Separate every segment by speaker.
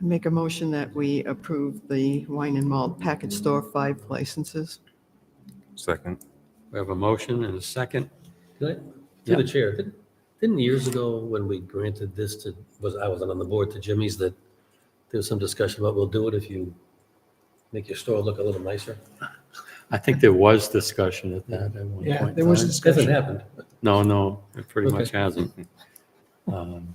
Speaker 1: Make a motion that we approve the wine and malt package store five licenses.
Speaker 2: Second.
Speaker 3: We have a motion and a second.
Speaker 4: Could I, through the chair, did- didn't years ago when we granted this to, was, I wasn't on the board to Jimmy's, that there was some discussion about we'll do it if you make your store look a little nicer?
Speaker 3: I think there was discussion at that at one point.
Speaker 5: Yeah,
Speaker 3: in
Speaker 5: there was
Speaker 3: time.
Speaker 4: Hasn't
Speaker 5: discussion.
Speaker 4: happened.
Speaker 3: No, no, it pretty
Speaker 4: Okay.
Speaker 3: much hasn't. Um,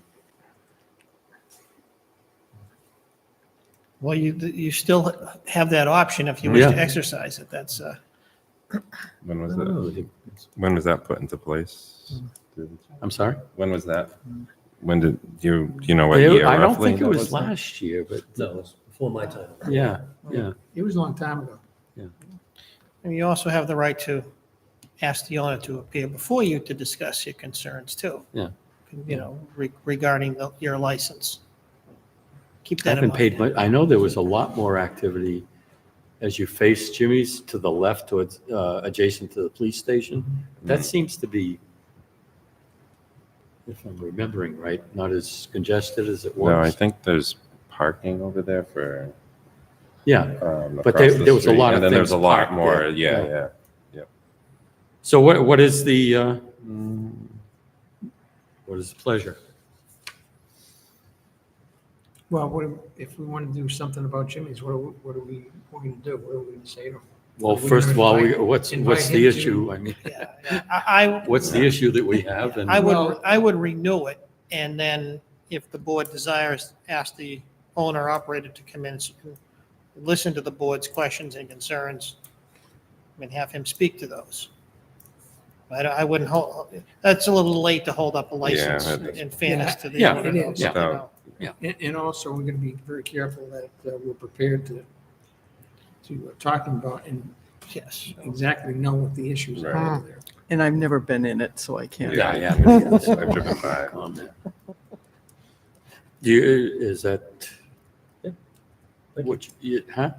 Speaker 5: Well, you, you still have that option if you wish
Speaker 3: Yeah.
Speaker 5: to exercise it. That's, uh,
Speaker 2: When
Speaker 3: Oh.
Speaker 4: I
Speaker 2: was
Speaker 4: don't
Speaker 2: that?
Speaker 4: know. You-
Speaker 2: When was that put into place?
Speaker 3: I'm sorry?
Speaker 2: When was that? When did you? Do you know what
Speaker 3: It-
Speaker 2: year?
Speaker 3: Hmm. I don't
Speaker 2: roughly
Speaker 3: think it
Speaker 2: that
Speaker 3: was last year, but
Speaker 4: No, it's before my time.
Speaker 3: yeah, yeah.
Speaker 6: It was a long time ago.
Speaker 5: and you also have the right to ask the owner to appear before you to discuss your concerns too.
Speaker 3: Yeah.
Speaker 5: You know, re- regarding the- your license. Keep
Speaker 3: I
Speaker 5: that in
Speaker 3: haven't
Speaker 5: mind.
Speaker 3: paid much. I know there was a lot more activity as you face Jimmy's to the left towards, uh, adjacent to the police station. That seems to be, if I'm remembering right, not as congested as it
Speaker 2: No, I
Speaker 3: was.
Speaker 2: think there's parking over there for.
Speaker 3: Yeah.
Speaker 2: Um, across
Speaker 3: But there-
Speaker 2: the
Speaker 3: there was a
Speaker 2: street,
Speaker 3: lot of
Speaker 2: And then there's a
Speaker 3: things
Speaker 2: lot
Speaker 3: parked
Speaker 2: more.
Speaker 3: there.
Speaker 2: Yeah,
Speaker 3: Yeah.
Speaker 2: yeah.
Speaker 3: So what, what is the, uh, what is the pleasure?
Speaker 6: Well, what, if we want to do something about Jimmy's, what are, we- what are we, what are we going to do? What are we going to say to him?
Speaker 3: Well,
Speaker 6: We
Speaker 3: first of all, we-
Speaker 6: invite-
Speaker 3: what's, what's
Speaker 6: invite
Speaker 3: the
Speaker 6: him to-
Speaker 3: issue? I mean,
Speaker 5: Yeah. I, I-
Speaker 3: what's the issue that we have? And
Speaker 5: I would,
Speaker 6: Well-
Speaker 5: I would renew it, and then if the board desires, ask the owner operator to come in and listen to the board's questions and concerns, and have him speak to those. But I wouldn't hold, that's a little late to hold up a license
Speaker 2: Yeah, that-
Speaker 5: in fairness to the
Speaker 3: Yeah,
Speaker 5: owner.
Speaker 6: it is.
Speaker 5: you know.
Speaker 6: And, uh, and also, we're going to be very careful that uh, we're prepared to, to uh, talking about and
Speaker 5: Yes.
Speaker 6: exactly know what the issues are
Speaker 2: Right.
Speaker 6: over there.
Speaker 1: And I've never been in it, so I can't.
Speaker 3: Yeah, yeah.
Speaker 2: I've driven by.
Speaker 3: on there. Do you, is that,
Speaker 4: Thank you.
Speaker 3: which, you- huh?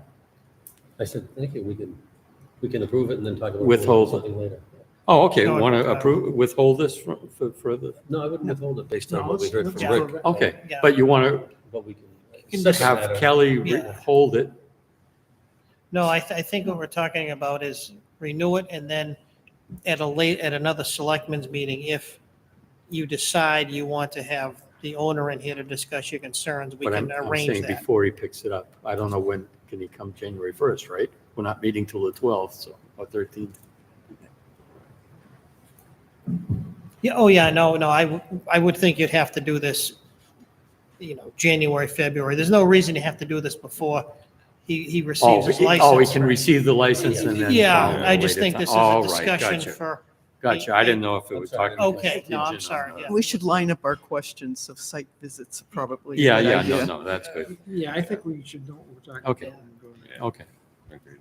Speaker 4: I said, thank you, we can, we can approve it and then talk about.
Speaker 3: Withhold it.
Speaker 4: Something later.
Speaker 3: Oh, okay,
Speaker 5: No,
Speaker 3: want to
Speaker 5: uh,
Speaker 3: approve, withhold this for, for further?
Speaker 4: No, I wouldn't withhold it based on
Speaker 6: No,
Speaker 4: what we
Speaker 6: let's-
Speaker 4: heard
Speaker 6: let's
Speaker 4: from
Speaker 6: go
Speaker 4: Rick.
Speaker 6: back.
Speaker 3: Okay,
Speaker 5: Yeah.
Speaker 3: but you want
Speaker 4: But we can.
Speaker 5: can
Speaker 3: to
Speaker 4: Doesn't
Speaker 3: have
Speaker 4: matter.
Speaker 3: Kelly re-
Speaker 5: Yeah.
Speaker 3: hold it?
Speaker 5: No, I, th- I think what we're talking about is renew it and then at a late, at another selectmen's meeting, if you decide you want to have the owner in here to discuss your concerns, we
Speaker 3: But I'm
Speaker 5: can
Speaker 3: I'm
Speaker 5: arrange
Speaker 3: saying
Speaker 5: that.
Speaker 3: before he picks it up. I don't know when, can he come January 1st, right? We're not meeting till the 12th, so, or 13th.
Speaker 5: Yeah, oh yeah, no, no, I, w- I would think you'd have to do this, you know, January, February. There's no reason to have to do this before he, he
Speaker 3: Oh,
Speaker 5: receives his
Speaker 3: he- oh, he can
Speaker 5: license.
Speaker 3: receive the license and then.
Speaker 5: Yeah,
Speaker 3: oh,
Speaker 5: I just
Speaker 3: wait
Speaker 5: think
Speaker 3: ti-
Speaker 5: this is a
Speaker 3: all right,
Speaker 5: discussion
Speaker 3: gotcha,
Speaker 5: for,
Speaker 3: Gotcha, I didn't know if it
Speaker 4: I'm
Speaker 3: was
Speaker 4: sorry.
Speaker 3: talking.
Speaker 5: okay, no, I'm
Speaker 3: contingent on
Speaker 5: sorry,
Speaker 3: the-
Speaker 5: yeah.
Speaker 1: We should line up our questions of site visits, probably.
Speaker 3: Yeah,
Speaker 1: Good
Speaker 3: yeah,
Speaker 1: idea.
Speaker 3: no, no, that's good.
Speaker 6: Yeah, I think we should know what we're talking about.
Speaker 3: Okay.
Speaker 6: and go there.
Speaker 3: Okay,
Speaker 2: Agreed.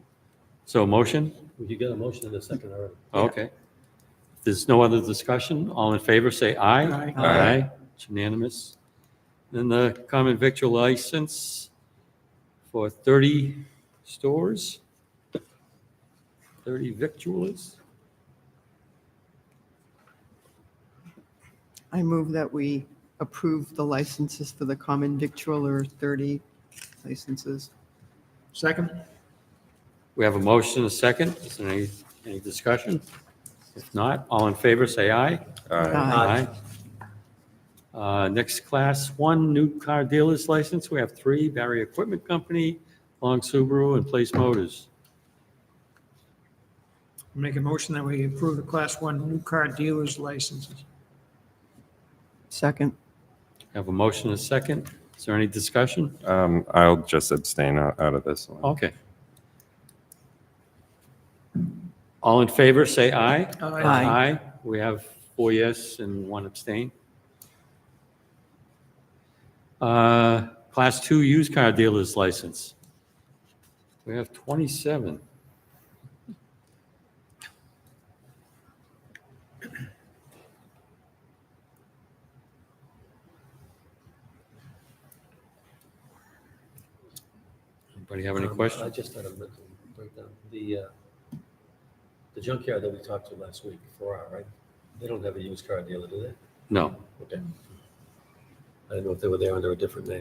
Speaker 3: so motion?
Speaker 4: You got a motion in a second already.
Speaker 3: Okay. If There's no other discussion? All in favor, say aye.
Speaker 6: Aye.
Speaker 2: Aye.
Speaker 3: It's unanimous. Then the common victual license for 30 stores, 30 victuals.
Speaker 1: I move that we approve the licenses for the common victualler 30 licenses.
Speaker 6: Second?
Speaker 3: We have a motion, a second. Is there any, any discussion? If not, all in favor, say aye.
Speaker 2: Aye.
Speaker 3: Aye. Uh, Next class, one new car dealer's license. We have three, Barry Equipment Company, Long Subaru, and Place Motors.
Speaker 6: Make a motion that we approve the class one new car dealer's licenses.
Speaker 1: Second.
Speaker 3: Have a motion, a second. Is there any discussion?
Speaker 2: Um, I'll just abstain out, out of this one.
Speaker 3: Okay. All in favor, say aye.
Speaker 6: Uh,
Speaker 1: Aye.
Speaker 3: We have four yes and one abstain. Uh, Class two used car dealer's license. We have 27. Anybody have any
Speaker 4: Um,
Speaker 3: questions?
Speaker 4: I just had a mental breakdown. The, uh, the junkyard that we talked to last week, four hour, right? They don't have a used car dealer, do they?
Speaker 3: No.
Speaker 4: Okay. I didn't know if they were there under a different name.